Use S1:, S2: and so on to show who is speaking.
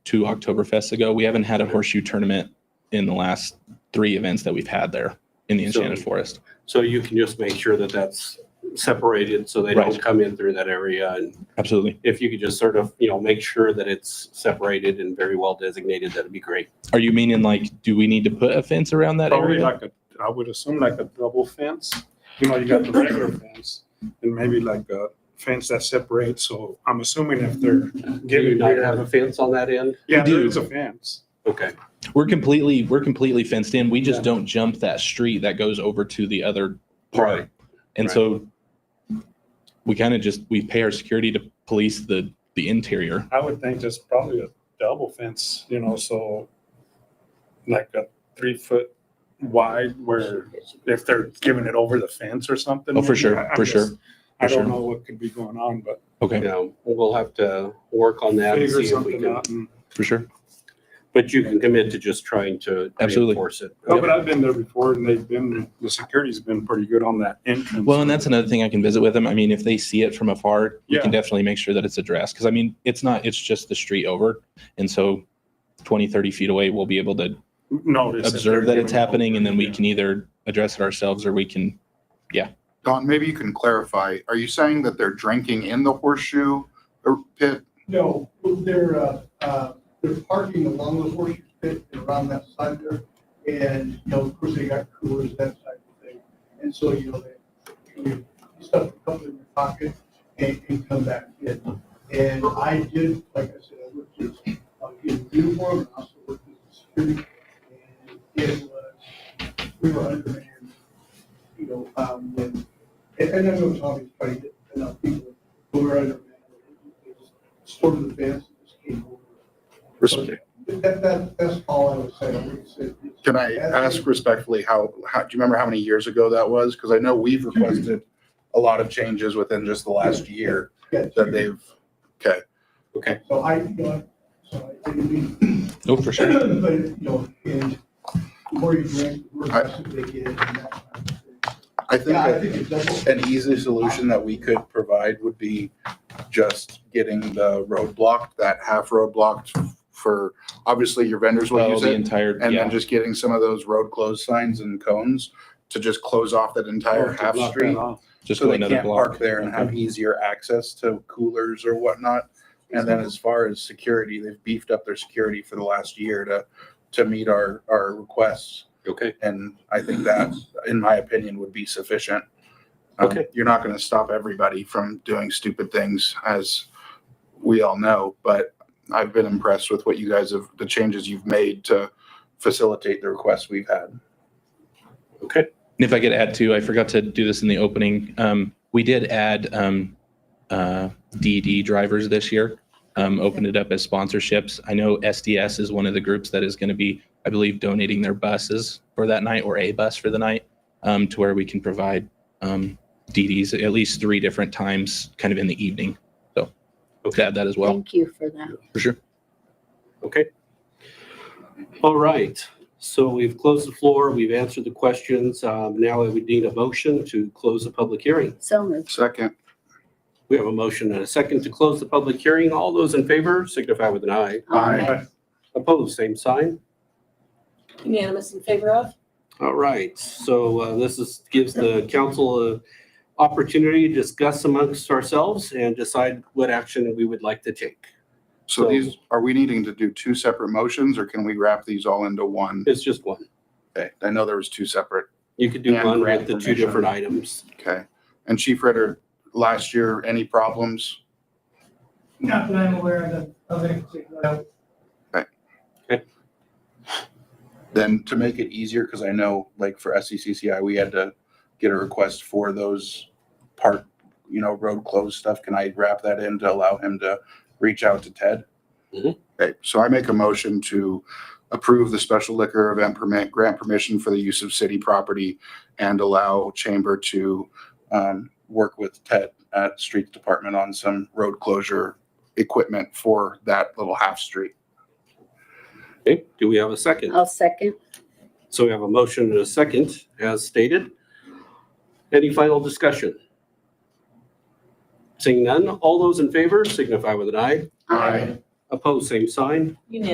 S1: two Oktoberfests ago. We haven't had a horseshoe tournament in the last three events that we've had there in the
S2: So-
S1: Enchanted Forest.
S2: So you can just make sure that that's separated so they don't
S1: Right.
S2: come in through that area. And
S1: Absolutely.
S2: if you could just sort of, you know, make sure that it's separated and very well designated, that'd be great.
S1: Are you meaning like, do we need to put a fence around that
S3: Probably
S1: area?
S3: like a, I would assume like a double fence. You know, you got the regular fence and maybe like a fence that separates. So I'm assuming if they're
S2: Do you
S3: giving
S2: not have
S3: beer,
S2: a fence on that end?
S3: yeah,
S1: do.
S3: there is a fence.
S2: Okay,
S1: We're completely, we're completely fenced in. We just
S2: Yeah.
S1: don't jump that street that goes over to the other park.
S2: Right,
S1: And
S2: right.
S1: so we kind of just, we pay our security to police the, the interior.
S3: I would think there's probably a double fence, you know, so like a three foot wide where if they're giving it over the fence or something.
S1: Oh, for
S3: maybe.
S1: sure,
S3: I- I'm
S1: for
S3: just-
S1: sure.
S3: I
S1: for sure.
S3: don't know what could be going on, but
S1: Okay,
S2: now, we'll have to work on that and
S3: figure
S2: see if we
S3: something
S2: can.
S3: out. and-
S1: for sure.
S2: But you can commit to just trying to
S1: Absolutely.
S2: reinforce it.
S3: No, Oh, but I've been there before and they've been, the security's been pretty good on that entrance.
S1: Well, and that's another thing I can visit with them. I mean, if they see it from afar, we
S3: Yeah.
S1: can definitely make sure that it's addressed. Cause I mean, it's not, it's just the street over. And so 20, 30 feet away, we'll be able to
S3: notice. if
S1: observe
S3: they're
S1: that it's
S3: giving
S1: happening and then we
S3: over,
S1: can either address it ourselves or we can,
S4: Don, maybe you can clarify, are you saying that they're drinking in the horseshoe or pit?
S5: No, they're, uh, uh, they're parking along the horseshoe pit and around that side there. And, you know, of course, they got coolers, that type of thing. And so, you know, they, you stuff a couple in your pocket and, and come back in. And I did, like I said, I worked as, uh, in uniform, and also worked as a security. And it was, we were undermanned, you know, um, when, and, and I know it's obvious, but I get enough people, but we're undermanned. They just Stormed the fence, and just came over.
S4: Respect.
S5: That, that, that's all I would say. I would say it's-
S4: Can I ask respectfully how, how, do you remember how many years ago that was? Because I know we've requested a lot of changes within just the last year
S5: Yeah,
S4: that they've, okay.
S2: Okay,
S5: So I, you know, so I think we,
S1: oh, for sure.
S5: but, you know, and the more you drink, the more
S4: I-
S5: aggressive they get. and that kind of thing.
S4: I think
S5: Yeah, I
S4: that
S5: think it's definitely.
S4: an easy solution that we could provide would be just getting the road blocked, that half road blocked for, obviously your vendors will
S1: Well,
S4: use
S1: the
S4: it.
S1: entire,
S4: And
S1: yeah.
S4: then just getting some of those road closed signs and cones to just close off that entire
S3: yeah.
S4: half
S3: Block that
S4: street.
S3: off.
S1: just
S4: So
S1: go
S4: they
S1: another
S4: can't park
S1: block.
S4: there and have easier access to coolers or whatnot. And then as far as security, they've beefed up their security for the last year to, to meet our, our requests.
S2: okay,
S4: And I think that, in my opinion, would be sufficient. Um,
S2: Okay.
S4: You're not going to stop everybody from doing stupid things, as we all know, but I've been impressed with what you guys have, the changes you've made to facilitate the requests we've had.
S2: okay.
S1: And if I could add too, I forgot to do this in the opening. Um, we did add um, uh, DD drivers this year. Um, opened it up as sponsorships. I know SDS is one of the groups that is going to be, I believe, donating their buses for that night or a bus for the night um, to where we can provide um, DDs at least three different times, kind of in the evening. So, hope to add that as well
S6: Thank you for that.
S1: for sure.
S2: Okay. All right, so we've closed the floor, we've answered the questions. Um, Now I would need a motion to close the public hearing.
S6: So moved.
S4: Second,
S2: We have a motion and a second to close the public hearing. All those in favor signify with an eye.
S4: Aye.
S2: Opposed, same sign.
S7: Unanimous in favor of?
S2: All right, so uh, this is, gives the council an opportunity to discuss amongst ourselves and decide what action we would like to take.
S4: so these, are we needing to do two separate motions or can we wrap these all into one?
S2: It's just one.
S4: Okay, I know there was two separate.
S2: You could do
S4: And
S2: one with
S4: grant
S2: the two
S4: permission.
S2: different items.
S4: Okay. And Chief Ritter, last year, any problems?
S5: Not that I'm aware of, of any particular.
S4: Then to make it easier, because I know like for E SECCI, we had to get a request for those park, you know, road closed stuff. Can I wrap that in to allow him to reach out to Ted?
S2: Mhm.
S4: Okay, so I make a motion to approve the special liquor event permit, grant permission for the use of city property and allow Chamber to um, work with Ted at Streets Department on some road closure equipment for that little half street.
S2: Okay, do we have a second?
S6: I'll second.
S2: So we have a motion and a second as stated. Any final discussion? Seeing none, all those in favor signify with an eye.
S8: Opposed, same sign.
S2: Unanimous.